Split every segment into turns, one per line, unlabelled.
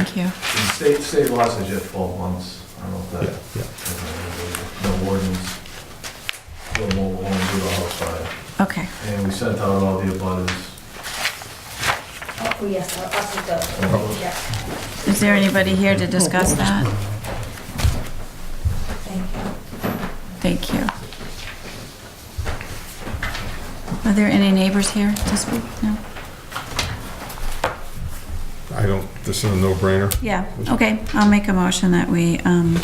Thank you.
State, state law says you have 12 months. I don't know if
Yeah, yeah.
that, no wardens, no mobile home due to house fire.
Okay.
And we sent out all the abutters.
Oh, yes, I'll, I'll see
Oh.
Uh-huh.
those. Yeah,
Is there anybody here to discuss that?
thank you.
Thank you. Are there any neighbors here to speak? No?
I don't, this is a no-brainer.
Yeah, okay. I'll make a motion that we um,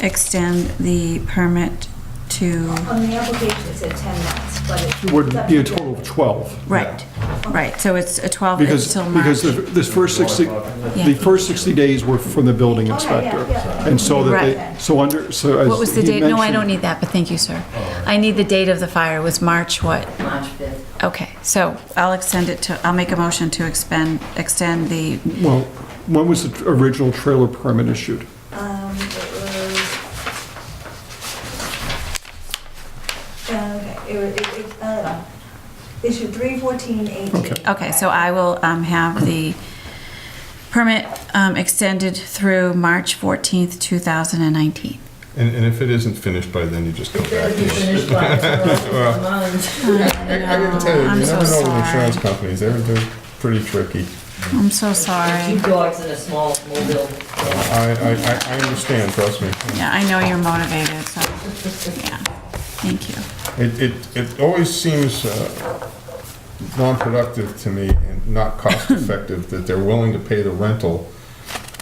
extend the permit to,
On the application, it said 10 months, but it...
It would be a total of 12.
right, right. So it's a 12, it's
Because,
till March.
because the- this first 60,
Yeah. Oh,
the first 60 days were from the building
All right,
inspector.
Oh, yeah, yeah.
And so that they,
Right.
so under, so as.
What was the
he
date? No, I
mentioned-
don't need that, but thank you, sir. I need the date of the fire. It was March what?
March 5th.
Okay, so I'll extend it to, I'll make a motion to expend, extend the,
Well, when was the tr- original trailer permit issued?
Um, it was... Uh, Okay, it was, it, it, uh, issue 31418.
Okay.
okay, so I will um, have the permit um, extended through March 14th, 2019.
And, and if it isn't finished by then, you just come back.
It'll be finished by the month.
I I gotta tell you,
I'm
you
so
never know with
sorry.
insurance companies, they're, they're pretty tricky.
I'm so
Two
sorry.
dogs in a small mobile.
I, I, I- I understand, trust me.
Yeah, I know you're motivated, so, yeah, thank you.
It, it, it always seems uh, non-productive to me and not cost-effective that they're willing to pay the rental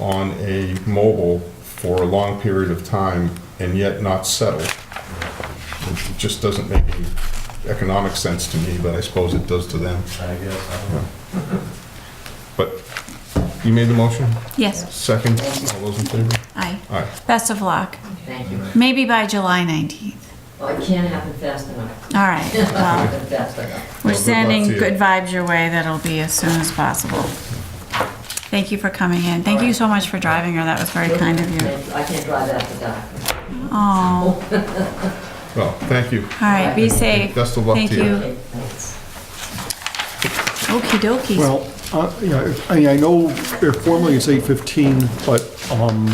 on a mobile for a long period of time and yet not settle. It just doesn't make any economic sense to me, but I suppose it does to them.
I guess, I don't know.
But you made the motion?
Yes,
Second, all those in favor?
aye.
Aye.
Best of luck.
Thank you.
Maybe by July 19th.
Well, it can't happen fast enough.
All right, well.
Happen Fast enough.
We're
Well, good luck
sending
to you.
good vibes your way. That'll be as soon as possible. Thank you for coming in. Thank you so much for driving her. That was very kind of you.
I can't drive after dark.
Oh,
Well, thank you.
all right, be safe.
Best of luck
Thank
to you.
Okay, thanks.
Okey dokey.
Well, uh, yeah, I mean, I know uh, formally it's 8:15, but um,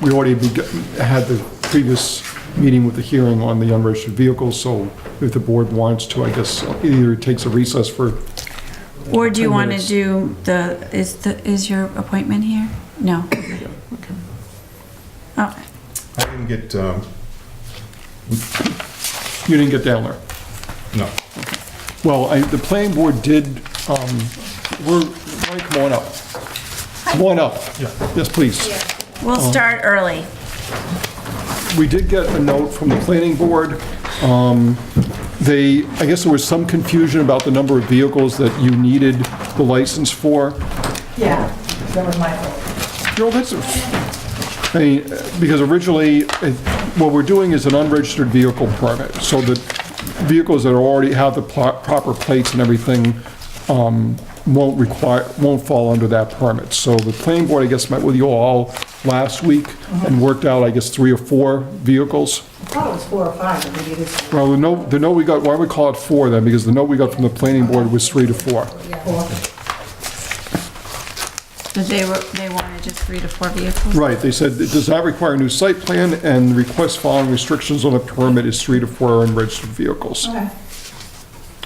we already beg- had the previous meeting with the hearing on the unregistered vehicles, so if the board wants to, I guess, either it takes a recess for
Or do you
Ten
want to
minutes.
do the, is the, is your appointment here? No. Oh,
I didn't get, um,
You didn't get down there.
no.
Well, I, the planning board did, um, we're, Mike, come on up. Come on up. Yes, please.
We'll start early.
We did get a note from the planning board. Um, They, I guess there was some confusion about the number of vehicles that you needed the license for.
Yeah, that was my fault.
Joe, that's, I mean, because originally, it- what we're doing is an unregistered vehicle permit, so that vehicles that already have the pl- proper plates and everything um, won't require, won't fall under that permit. So the planning board, I guess, met with you all last week and worked out, I guess, three or four vehicles.
I thought it was four or five, but maybe it is
Well, the note, the note we got, why we call it four then, because the note we got from the planning board was three to four.
four.
But they were, they wanted just three to four vehicles?
Right, they said, it does not require a new site plan, and the request following restrictions on the permit is three to four unregistered vehicles.
Okay.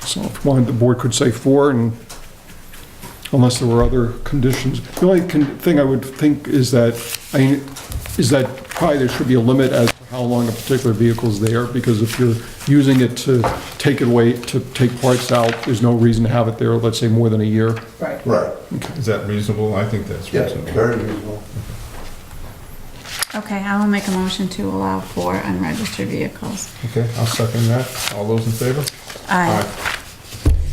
So if one, the board could say four, and unless there were other conditions. The only con- thing I would think is that, I, is that probably there should be a limit as to how long a particular vehicle's there, because if you're using it to take it away, to take parts out, there's no reason to have it there, let's say, more than a year.
Right.
Right,
Is that reasonable? I think that's
yeah,
reasonable.
very reasonable.
Okay, I will make a motion to allow four unregistered vehicles.
Okay, I'll second that. All those in favor?
Aye.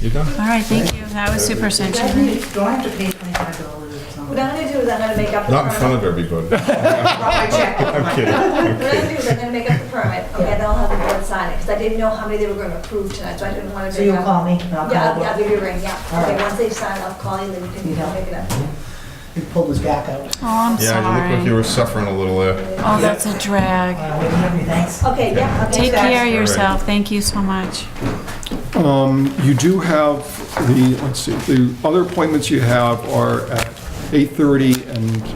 You done?
All right, thank you. That was super
Do I
sensitive.
need- do I have to pay twenty-five dollars or something?
What I'm gonna do is I'm gonna make up the
Not in front
permit.
of everybody.
I check.
I'm kidding.
What I'm gonna do is I'm gonna make up the permit, okay, then I'll have the board sign it, because I didn't know how many they were gonna approve tonight, so I didn't wanna.
So
make
you'll
up-
call me and I'll
Yeah,
come
I'll I'll
over.
give you a ring, yeah.
All
Okay,
right.
once they sign, I'll call you, then you can you can pick it up.
He pulled his back out.
Oh, I'm
Yeah, you look like you
sorry.
were suffering a little there.
Oh, that's a drag.
Well, we can have your thanks.
Okay, yeah. okay,
Take
so-
care of yourself. Thank you so much.
Um, You do have the, let's see, the other appointments you have are at 8:30 and